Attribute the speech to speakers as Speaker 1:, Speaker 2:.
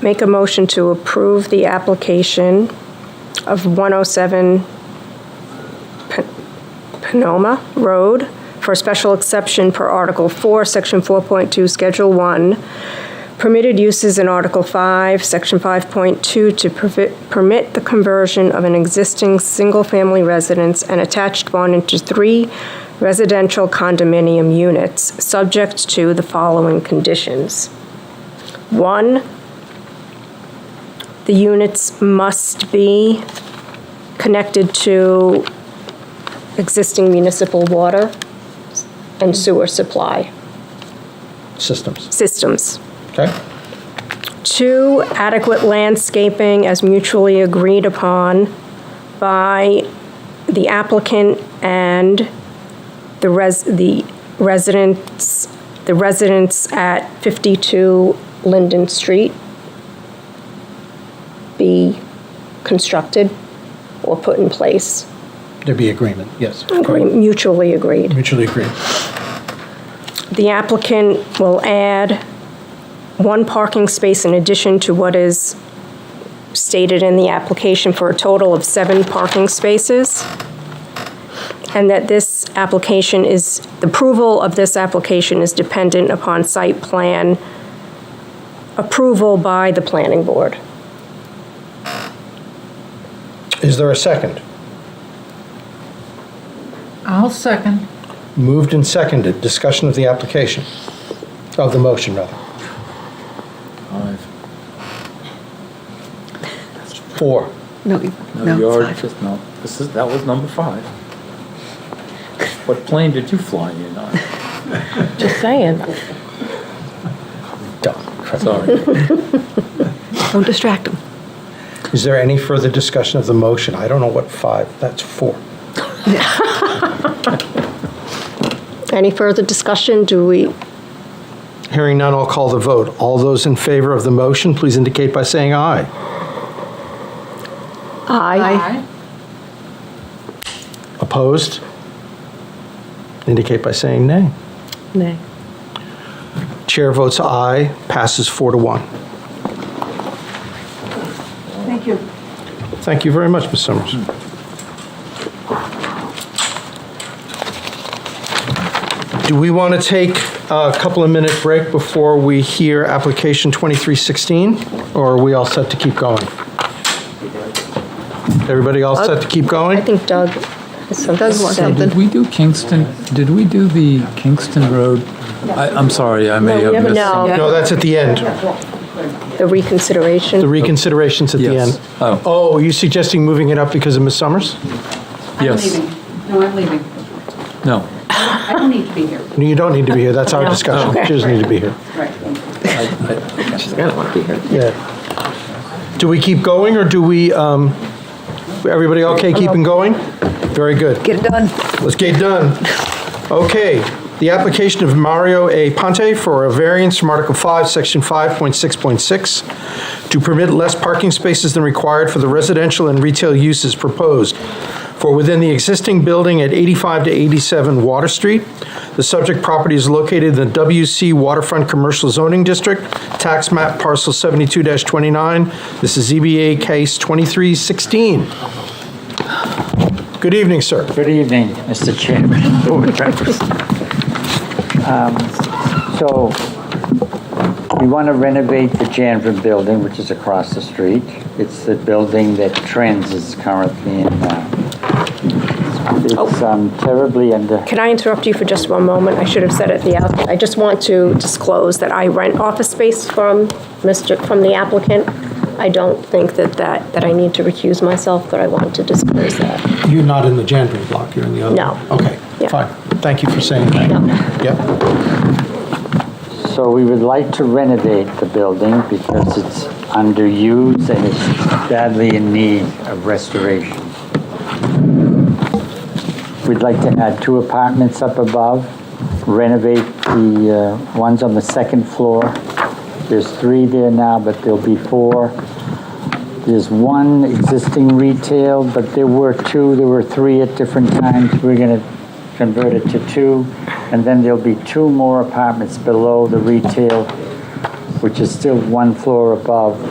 Speaker 1: Make a motion to approve the application of 107 Pe- Penoma Road for special exception per Article 4, Section 4.2, Schedule 1, permitted uses in Article 5, Section 5.2 to pervi- permit the conversion of an existing single-family residence and attached one into three residential condominium units, subject to the following conditions. One, the units must be connected to existing municipal water and sewer supply
Speaker 2: systems,
Speaker 1: systems.
Speaker 2: okay?
Speaker 1: Two, adequate landscaping as mutually agreed upon by the applicant and the res, the residents, the residents at 52 Linden Street be constructed or put in place,
Speaker 2: There'd be agreement, yes.
Speaker 1: Agree- mutually agreed.
Speaker 2: Mutually agreed.
Speaker 1: The applicant will add one parking space in addition to what is stated in the application for a total of seven parking spaces. And that this application is, the approval of this application is dependent upon site plan approval by the planning board.
Speaker 2: Is there a second?
Speaker 3: I'll second.
Speaker 2: Moved and seconded, discussion of the application, of the motion, rather.
Speaker 4: Five.
Speaker 2: Four.
Speaker 5: No, you-
Speaker 4: No, you
Speaker 5: no,
Speaker 4: already
Speaker 5: five.
Speaker 4: just, no, this is, that was number five. What plane did you fly in on?
Speaker 6: Just saying.
Speaker 2: Done.
Speaker 4: Sorry.
Speaker 5: Don't distract them.
Speaker 2: Is there any further discussion of the motion? I don't know what five, that's four.
Speaker 1: Any further discussion? Do we,
Speaker 2: Hearing none, I'll call the vote. All those in favor of the motion, please indicate by saying aye.
Speaker 1: aye?
Speaker 2: Opposed? Indicate by saying nay.
Speaker 6: Nay.
Speaker 2: Chair votes aye, passes four to one.
Speaker 3: Thank you.
Speaker 2: Thank you very much, Ms. Summers. Do we want to take a couple of minute break before we hear application 2316? Or are we all set to keep going? Everybody all set to keep
Speaker 1: I
Speaker 2: going?
Speaker 1: think Doug has something to
Speaker 5: Doug wants
Speaker 1: say.
Speaker 5: something.
Speaker 4: Did we do Kingston, did we do the Kingston Road? I, I'm sorry, I may
Speaker 1: No,
Speaker 4: have
Speaker 1: never
Speaker 4: missed.
Speaker 1: know.
Speaker 4: some-
Speaker 2: No, that's at the end.
Speaker 1: The reconsideration?
Speaker 2: The reconsideration's at the
Speaker 4: Yes.
Speaker 2: end.
Speaker 4: Oh.
Speaker 2: Oh, are you suggesting moving it up because of Ms. Summers?
Speaker 4: Yes.
Speaker 7: I'm leaving. No, I'm leaving.
Speaker 4: No,
Speaker 7: I don't need to be here.
Speaker 2: No, you don't need to be here. That's our discussion. She doesn't need to be here.
Speaker 7: Right, thank you.
Speaker 2: Yeah. Do we keep going, or do we, um, everybody okay keeping going? Very good.
Speaker 5: Get it done.
Speaker 2: Let's get done. Okay, the application of Mario A. Ponte for a variance from Article 5, Section 5.6.6 to permit less parking spaces than required for the residential and retail uses proposed for within the existing building at 85 to 87 Water Street. The subject property is located in the WC Waterfront Commercial Zoning District, Tax Map Parcel 72-29. This is ZBA Case 2316. Good evening, sir.
Speaker 8: Good evening, Mr. Chairman, board members. Um, So, we want to renovate the Janvin building, which is across the street. It's the building that Trends is currently in now. It's um, terribly under,
Speaker 1: Can I interrupt you for just one moment? I should have said it at the outset. I just want to disclose that I rent office space from Mr., from the applicant. I don't think that that, that I need to recuse myself, but I want to disclose that.
Speaker 2: You're not in the Janbury block, you're in the other?
Speaker 1: No.
Speaker 2: Okay,
Speaker 1: Yeah.
Speaker 2: fine. Thank you for saying that.
Speaker 1: No.
Speaker 2: Yep,
Speaker 8: so we would like to renovate the building because it's underused and it's badly in need of restoration. We'd like to add two apartments up above, renovate the uh, ones on the second floor. There's three there now, but there'll be four. There's one existing retail, but there were two, there were three at different times. We're going to convert it to two, and then there'll be two more apartments below the retail, which is still one floor above